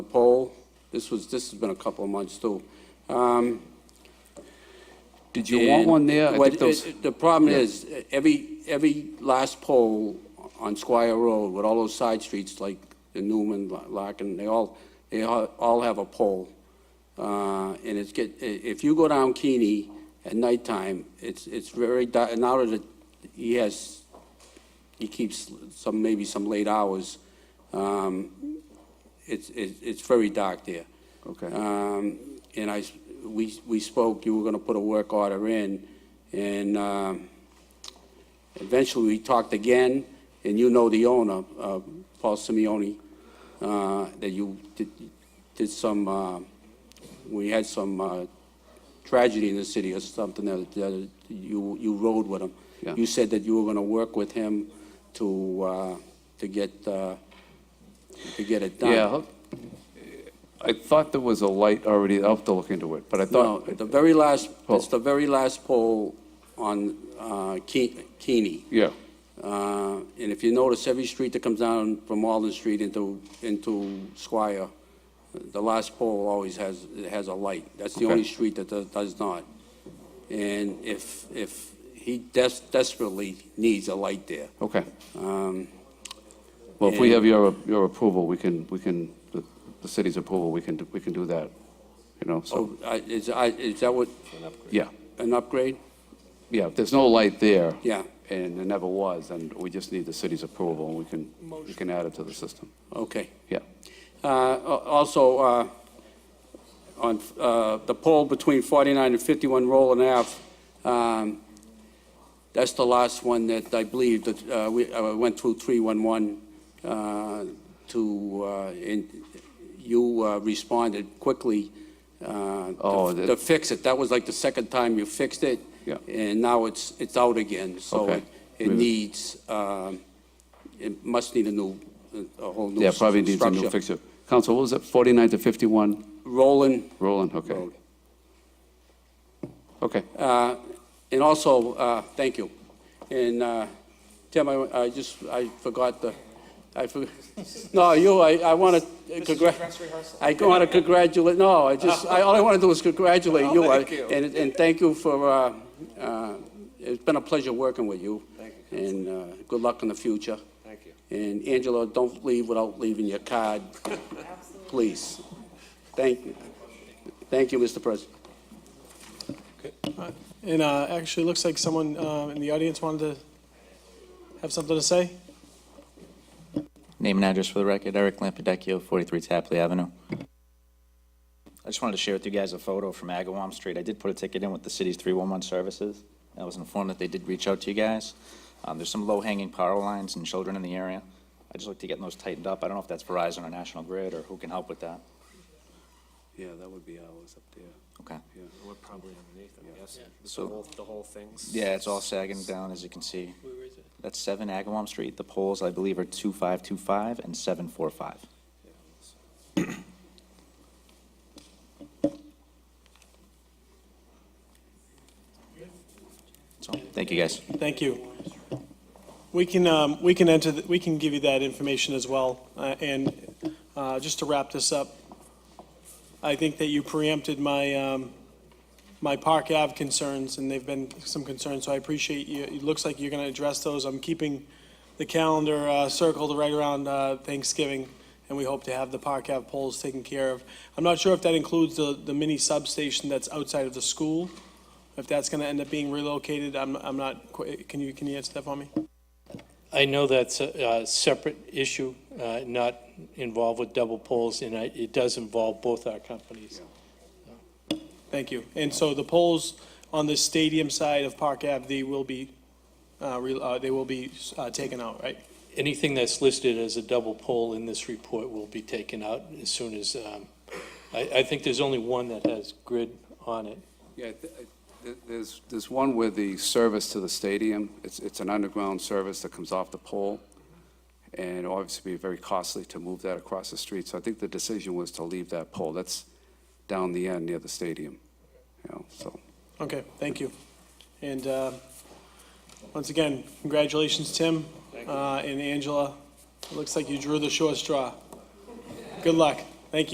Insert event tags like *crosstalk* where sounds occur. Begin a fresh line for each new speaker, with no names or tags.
this was, this has been a couple of months too. Um,
Did you want
and-
one there? I
Well,
think those,
it- The problem
yeah.
is, uh, every, every last pole on Squire Road with all those side streets like the Newman, Larkin, they all, they all all have a pole. Uh, And it's get, i- if you go down Keeney at nighttime, it's, it's very, di- and now that he has, he keeps some, maybe some late hours, um, it's, it's it's very dark there.
Okay.
Um, And I, s- we, we spoke, you were gonna put a work order in, and um, eventually we talked again, and you know the owner, uh, Paul Simeoni, uh, that you did, did some, uh, we had some uh, tragedy in the city or something, that that you, you rode with him.
Yeah.
You said that you were gonna work with him to, uh, to get, uh, to get it done.
yeah. how- I thought there was a light already, I'll have to look into it, but I
No,
thought,
the very last, it's
Pole.
the very last poll on uh, Ke- Keeney.
yeah,
Uh, And if you notice, every street that comes down from Alden Street into, into Squire, the last pole always has, it has a light. That's the
Okay.
only street that does- does not. And if, if he des- desperately needs a light there.
okay.
Um,
Well, if we
and-
have your, your approval, we can, we can, the the city's approval, we can, do- we can do that, you know, so,
So I- is, I- is that what,
yeah.
an upgrade?
Yeah, if there's no light there.
Yeah.
And there never was, then we just need the city's approval, and we can, we can add it to the system.
Okay.
Yeah,
Uh, al- Also, uh, on uh, the pole between 49 and 51 Roland Ave, um, that's the last one that I believe that uh, we I went through 311 uh, to, uh, and you uh, responded quickly uh,
Oh,
to
that-
to fix it. That was like the second time you fixed it.
Yeah.
And now it's, it's out again. So
Okay.
it- it
Maybe-
needs, um, it must need a new, a whole new
yeah,
s-
probably needs a new
structure.
fixture. Council, what was it, 49 to 51?
Roland
Roland, okay,
Road.
okay.
Uh, And also, uh, thank you. And uh, Tim, I I just, I forgot the, I forgot, no, you, I I want to congratulate. I want to congratulate, no, I just, I all I want to do is congratulate you. I- And and Oh, thank you for, uh, uh, it's been a pleasure working with you. Thank you. And uh, good luck in the future. Thank you. And Angela, don't leave without leaving your *laughs* card, please. Thank, you. thank you, Mr. President.
And uh, actually, it looks like someone um, in the audience wanted to have something to say.
Name and address for the record, Eric Lampidecchio, 43 Tapley Avenue. I just wanted to share with you guys a photo from Agawam Street. I did put a ticket in with the city's 311 services. I was informed that they did reach out to you guys. Um, There's some low-hanging power lines and children in the area. I just like to get those tightened up. I don't know if that's Verizon or National Grid or who can help with that.
Yeah, that would be ours up there.
Okay.
We're probably underneath them, yes? The
So-
whole, the whole thing's.
Yeah, it's all sagging down, as you can see. That's 7 Agawam Street. The poles, I believe, are 2525 and 745. So, thank you, guys.
Thank you. We can, um, we can enter, the- we can give you that information as well. Uh, And uh, just to wrap this up, I think that you preempted my, um, my Park Ave concerns, and they've been some concerns, so I appreciate you. It looks like you're going to address those. I'm keeping the calendar uh, circled right around uh, Thanksgiving, and we hope to have the Park Ave poles taken care of. I'm not sure if that includes the, the mini substation that's outside of the school, if that's going to end up being relocated. I'm, I'm not, qui- can you, can you answer that for me?
I know that's a a separate issue, uh, not involved with double polls, and I- it does involve both our companies.
Thank you. And so the poles on the stadium side of Park Ave, they will be, uh, re- uh, they will be uh, taken out, right?
Anything that's listed as a double poll in this report will be taken out as soon as, um, I I think there's only one that has grid on it.
Yeah, th- uh, th- there's, there's one with the service to the stadium. It's, it's an underground service that comes off the pole, and it'll obviously be very costly to move that across the street. So I think the decision was to leave that pole. That's down the end near the stadium, you know, so.
Okay, thank you. And uh, once again, congratulations, Tim uh, and Angela. It looks like you drew the short straw. Good luck.